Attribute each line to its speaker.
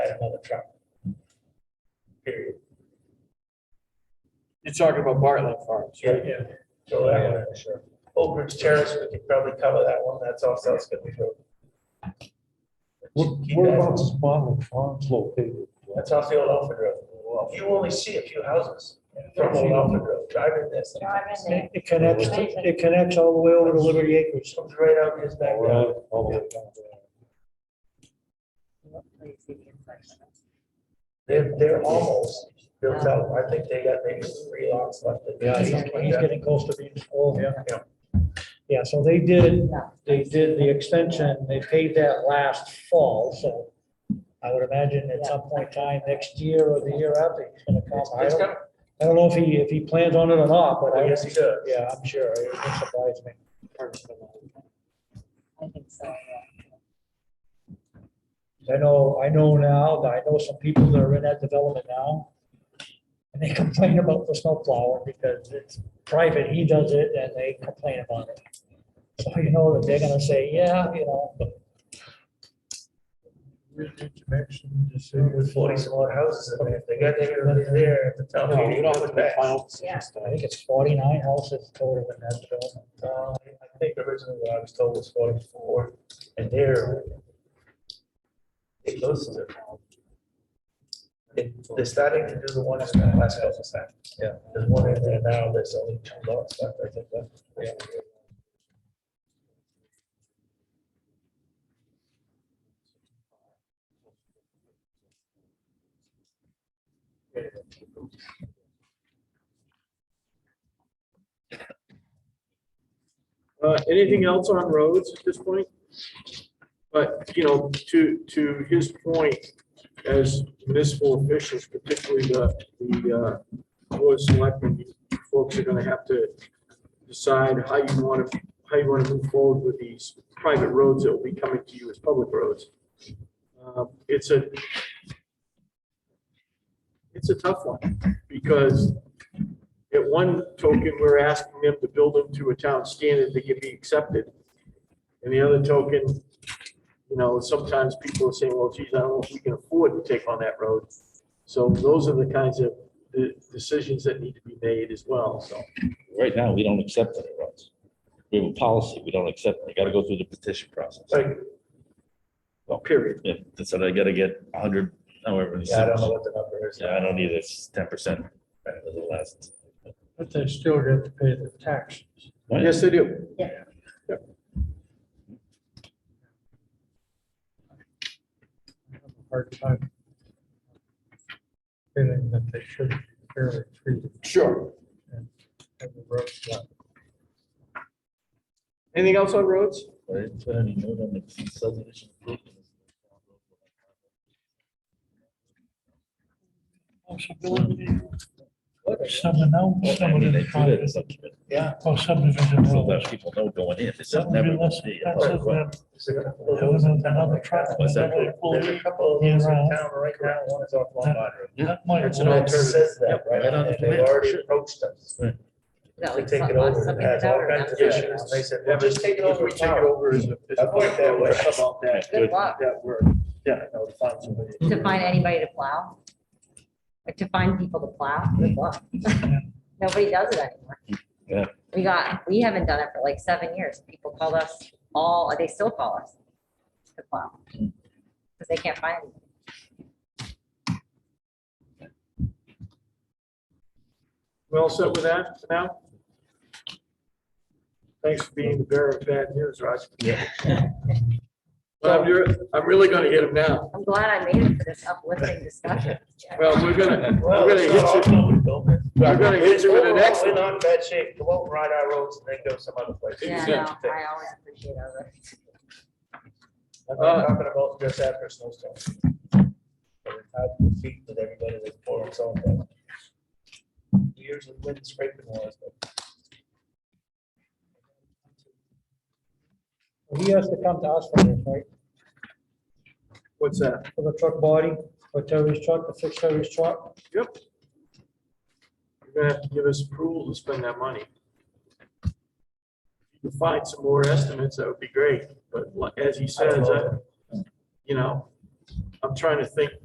Speaker 1: another truck. Period.
Speaker 2: You're talking about Bartlett Farms, right?
Speaker 1: Yeah. So that one, sure. Oak Ridge Terrace, we could probably cover that one, that's off South Scotty Road.
Speaker 3: What
Speaker 1: Keep
Speaker 3: what
Speaker 1: that-
Speaker 3: about this Bartlett Farms located?
Speaker 1: That's off the old Alfred Road. You only see a few houses from old Alfred Road, driving this.
Speaker 4: Driving there.
Speaker 5: It it connects, to- it connects all the way over to Liberty Acres.
Speaker 1: Comes right out his back road.
Speaker 3: All the way down there.
Speaker 1: They're, they're almost built out, I think they got maybe three lots left.
Speaker 5: He's he's getting close to being full.
Speaker 1: Yeah.
Speaker 5: Yeah, so they did, they did the extension, they paid that last fall, so I would imagine at some point in time, next year or the year after, he's gonna come. I
Speaker 1: It's
Speaker 5: don't,
Speaker 1: got-
Speaker 5: I don't know if he, if he plans on it or not, but
Speaker 1: I
Speaker 5: I,
Speaker 1: guess he does.
Speaker 5: yeah, I'm sure, it wouldn't surprise me.
Speaker 4: I think so, yeah.
Speaker 5: 'Cause I know, I know now, that I know some people that are in that development now. And they complain about the snow plowing because it's private, he does it, and they complain about it. So you know that they're gonna say, yeah, you know, but
Speaker 1: With forty some odd houses in there, if they got there, there at the top.
Speaker 2: No, we don't have to
Speaker 1: put
Speaker 2: make
Speaker 1: back.
Speaker 2: final
Speaker 4: Yeah.
Speaker 2: decisions.
Speaker 5: I think it's forty-nine houses total in that development.
Speaker 1: Uh, I think originally what I was told was forty-four, and they're. They close to. They- They're starting to do the one that's the last couple of steps.
Speaker 5: Yeah.
Speaker 1: There's one in there now, there's only two lots left, I think, left.
Speaker 5: Yeah.
Speaker 2: Uh, anything else on roads at this point? But, you know, to, to his point, as municipal officials, particularly the, the, uh, board of selectmen, you folks are gonna have to decide how you wanna, how you wanna move forward with these private roads that will be coming to you as public roads. Uh, It's a, it's a tough one, because at one token, we're asking them to build them to a town standard that can be accepted. And the other token, you know, sometimes people are saying, well, geez, I don't know if we can afford to take on that road. So those are the kinds of uh, decisions that need to be made as well, so.
Speaker 6: Right now, we don't accept any roads. We have a policy, we don't accept, we gotta go through the petition process.
Speaker 2: Like, well, period.
Speaker 6: Yeah, that's what I gotta get a hundred, however. many
Speaker 1: Yeah, I don't know
Speaker 6: signatures.
Speaker 1: what the number is.
Speaker 6: Yeah, I don't either, it's ten percent of the last.
Speaker 5: But they still have to pay the tax.
Speaker 2: Yes, they do.
Speaker 5: I have a Hard time. Feeling that they should be fairly treated
Speaker 2: Sure.
Speaker 5: as a road.
Speaker 2: Anything else on roads?
Speaker 6: But it's been any note on the subdivision approval.
Speaker 7: Someone else,
Speaker 6: I
Speaker 7: someone
Speaker 6: mean, they
Speaker 7: in
Speaker 6: do that in
Speaker 7: private,
Speaker 6: subdivision,
Speaker 7: or Oh, subdivision.
Speaker 6: So
Speaker 7: road.
Speaker 6: that people know going in, it's
Speaker 7: That
Speaker 6: not
Speaker 7: would be
Speaker 6: never.
Speaker 7: less expensive than-
Speaker 1: Is it gonna-
Speaker 7: There was another truck.
Speaker 6: What's that?
Speaker 7: that
Speaker 1: There's
Speaker 7: pulled-
Speaker 1: a couple of those in town right now, one is off Long Pond Road.
Speaker 7: That might
Speaker 1: It's
Speaker 7: have
Speaker 1: an
Speaker 7: been-
Speaker 1: alternative. Says that,
Speaker 6: Yep,
Speaker 1: right?
Speaker 6: right on the
Speaker 1: And They've
Speaker 6: plan.
Speaker 1: already approached us.
Speaker 4: No,
Speaker 1: to
Speaker 4: it's
Speaker 1: take
Speaker 4: not
Speaker 1: it over.
Speaker 4: something
Speaker 1: It has all
Speaker 4: better,
Speaker 1: kinds of
Speaker 4: that's-
Speaker 1: issues. They said, well, just take it over.
Speaker 2: Take it over as a. as a
Speaker 1: I like that way.
Speaker 2: How About that,
Speaker 4: Good luck
Speaker 2: that word. Yeah, no, to find somebody.
Speaker 4: to find anybody to plow. Like to find people to plow, good luck. Nobody does it anymore.
Speaker 6: Yeah.
Speaker 4: We got, we haven't done it for like seven years. People called us all, they still call us to plow. Because they can't find anyone.
Speaker 2: We all set with that for now? Thanks for being the bearer of bad news, Roger.
Speaker 6: Yeah.
Speaker 2: But I'm, re- I'm really gonna hit him now.
Speaker 4: I'm glad I made it for this uplifting discussion.
Speaker 2: Well, we're gonna,
Speaker 1: Well,
Speaker 2: we're gonna
Speaker 1: it's
Speaker 2: hit
Speaker 1: not
Speaker 2: you,
Speaker 1: all over, though.
Speaker 2: we're gonna hit you with an
Speaker 1: Overall, We're
Speaker 2: excellent.
Speaker 1: not in bad shape. Go out and ride our roads and then go some other place.
Speaker 4: Yeah, no, I always appreciate others.
Speaker 1: I'm not talking about just after a snowstorm. But it's hard to compete with everybody that's pouring salt down. Years of wind scraping was, but
Speaker 5: He has to come to us for this, right?
Speaker 2: What's that?
Speaker 5: For the truck body, for Terry's truck, to fix Terry's truck.
Speaker 2: Yep. You're gonna have to give us approval to spend that money. If you can find some more estimates, that would be great, but like, as he
Speaker 1: I don't
Speaker 2: says,
Speaker 1: know.
Speaker 2: I- you know, I'm trying to think